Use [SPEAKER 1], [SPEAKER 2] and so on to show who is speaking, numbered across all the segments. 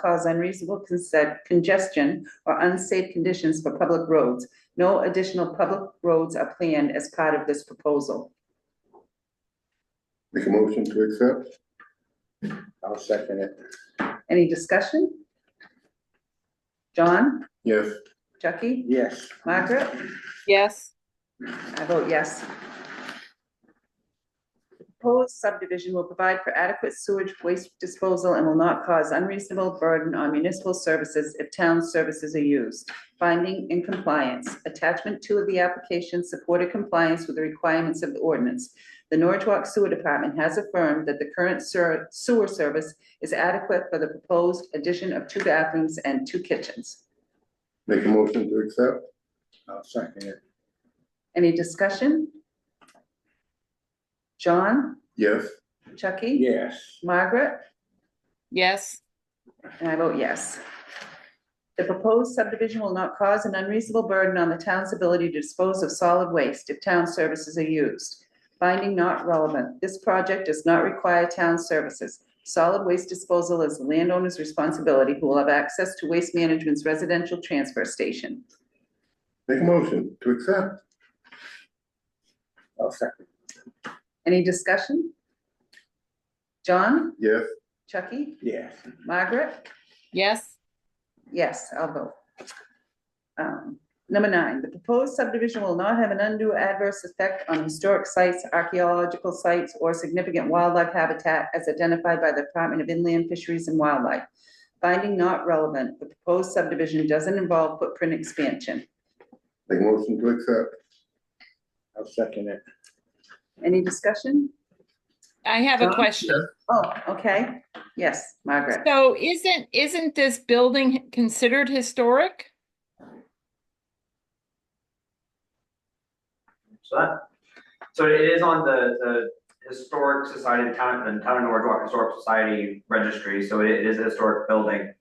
[SPEAKER 1] cause unreasonable consent, congestion, or unsafe conditions for public roads. No additional public roads are planned as part of this proposal.
[SPEAKER 2] Make a motion to accept?
[SPEAKER 3] I'll second it.
[SPEAKER 1] Any discussion? John,
[SPEAKER 2] Yes.
[SPEAKER 1] Chucky,
[SPEAKER 3] Yes,
[SPEAKER 1] Margaret?
[SPEAKER 4] yes,
[SPEAKER 1] I vote yes. Proposed subdivision will provide for adequate sewage waste disposal and will not cause unreasonable burden on municipal services if town services are used. Finding in compliance, attachment two of the application supported compliance with the requirements of the ordinance. The Norwood Sewer Department has affirmed that the current ser- sewer service is adequate for the proposed addition of two bathrooms and two kitchens.
[SPEAKER 2] Make a motion to accept?
[SPEAKER 3] I'll second it.
[SPEAKER 1] Any discussion? John,
[SPEAKER 2] Yes.
[SPEAKER 1] Chucky?
[SPEAKER 3] Yes,
[SPEAKER 1] Margaret,
[SPEAKER 4] yes,
[SPEAKER 1] and I vote yes. The proposed subdivision will not cause an unreasonable burden on the town's ability to dispose of solid waste if town services are used. Finding not relevant, this project does not require town services. Solid waste disposal is the landowner's responsibility who will have access to Waste Management's residential transfer station.
[SPEAKER 2] Make a motion to accept?
[SPEAKER 3] I'll second.
[SPEAKER 1] Any discussion? John,
[SPEAKER 2] Yes.
[SPEAKER 1] Chucky,
[SPEAKER 3] Yes,
[SPEAKER 1] Margaret?
[SPEAKER 4] yes,
[SPEAKER 1] Yes, I'll vote. Um, Number nine, the proposed subdivision will not have an undue adverse effect on historic sites, archaeological sites, or significant wildlife habitat as identified by the Department of Inland Fisheries and Wildlife. Finding not relevant, the proposed subdivision doesn't involve footprint expansion.
[SPEAKER 2] Make a motion to accept?
[SPEAKER 3] I'll second it.
[SPEAKER 1] Any discussion?
[SPEAKER 4] I have a
[SPEAKER 1] John?
[SPEAKER 4] question.
[SPEAKER 1] Oh, okay, yes, Margaret.
[SPEAKER 4] So isn't, isn't this building considered historic?
[SPEAKER 5] So that, so it is on the, the Historic Society, the Town, the Town of Norwood Historic Society Registry, so it is a historic building.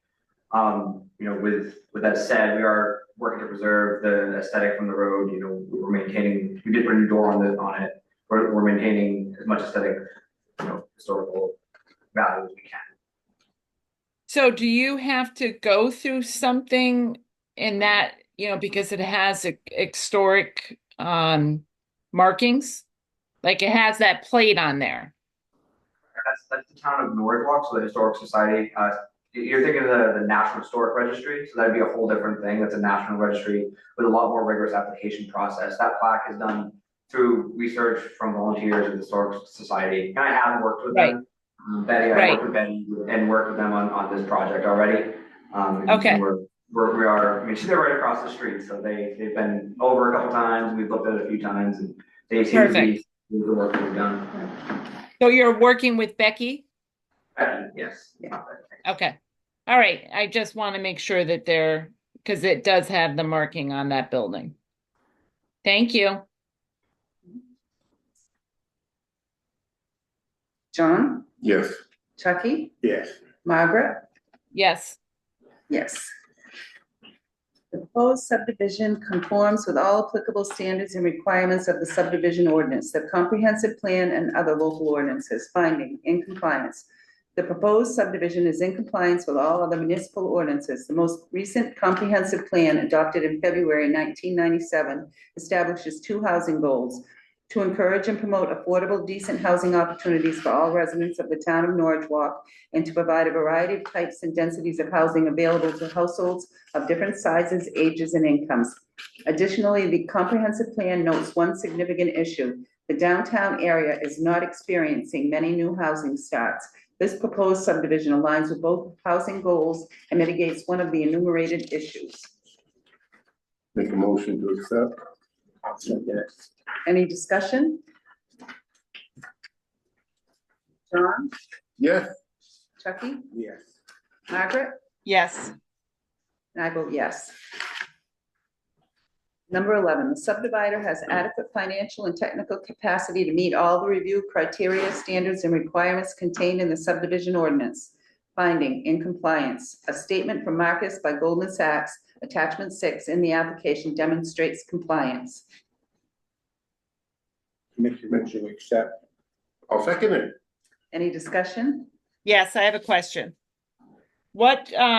[SPEAKER 5] Um, you know, with, with that said, we are working to preserve the aesthetic from the road, you know, we're maintaining, we did put a new door on the, on it. We're, we're maintaining as much aesthetic, you know, historical value as we can.
[SPEAKER 4] So do you have to go through something in that, you know, because it has a historic um markings? Like it has that plate on there.
[SPEAKER 5] That's, that's the town of Norwood, so the Historic Society, uh, you- you're thinking of the, the National Historic Registry, so that'd be a whole different thing, that's a national registry with a lot more rigorous application process, that plaque is done through research from volunteers of the Historic Society, and I have worked with them. Betty, I
[SPEAKER 4] Right.
[SPEAKER 5] worked with Betty and worked with them on, on this project already, um. and
[SPEAKER 4] Okay.
[SPEAKER 5] We're, we're, we are, I mean, they're right across the street, so they, they've been over a couple times, we've looked at it a few times, and they seem to
[SPEAKER 4] Perfect.
[SPEAKER 5] be, with the work we've done.
[SPEAKER 4] So you're working with Becky?
[SPEAKER 5] Becky, yes.
[SPEAKER 1] Yeah.
[SPEAKER 4] Okay. All right. I just want to make sure that they're, because it does have the marking on that building. Thank you.
[SPEAKER 1] John,
[SPEAKER 2] Yes.
[SPEAKER 1] Chucky,
[SPEAKER 3] Yes,
[SPEAKER 1] Margaret?
[SPEAKER 4] Yes,
[SPEAKER 1] Yes. The proposed subdivision conforms with all applicable standards and requirements of the subdivision ordinance, the comprehensive plan and other local ordinances, finding in compliance. The proposed subdivision is in compliance with all other municipal ordinances. The most recent comprehensive plan adopted in February nineteen ninety-seven establishes two housing goals. To encourage and promote affordable decent housing opportunities for all residents of the town of Norwich Walk and to provide a variety of types and densities of housing available to households of different sizes, ages, and incomes. Additionally, the comprehensive plan notes one significant issue. The downtown area is not experiencing many new housing starts. This proposed subdivision aligns with both housing goals and mitigates one of the enumerated issues.
[SPEAKER 2] Make a motion to accept?
[SPEAKER 3] I'll second it.
[SPEAKER 1] Any discussion? John,
[SPEAKER 2] Yes.
[SPEAKER 1] Chucky,
[SPEAKER 3] Yes,
[SPEAKER 1] Margaret?
[SPEAKER 4] yes,
[SPEAKER 1] And I vote yes. Number 11, the subdivider has adequate financial and technical capacity to meet all the review criteria, standards, and requirements contained in the subdivision ordinance. Finding in compliance, a statement from Marcus by Goldman Sachs, attachment six in the application demonstrates compliance.
[SPEAKER 3] make a motion to accept.
[SPEAKER 2] I'll second it.
[SPEAKER 1] Any discussion?
[SPEAKER 4] yes, I have a question. What, uh,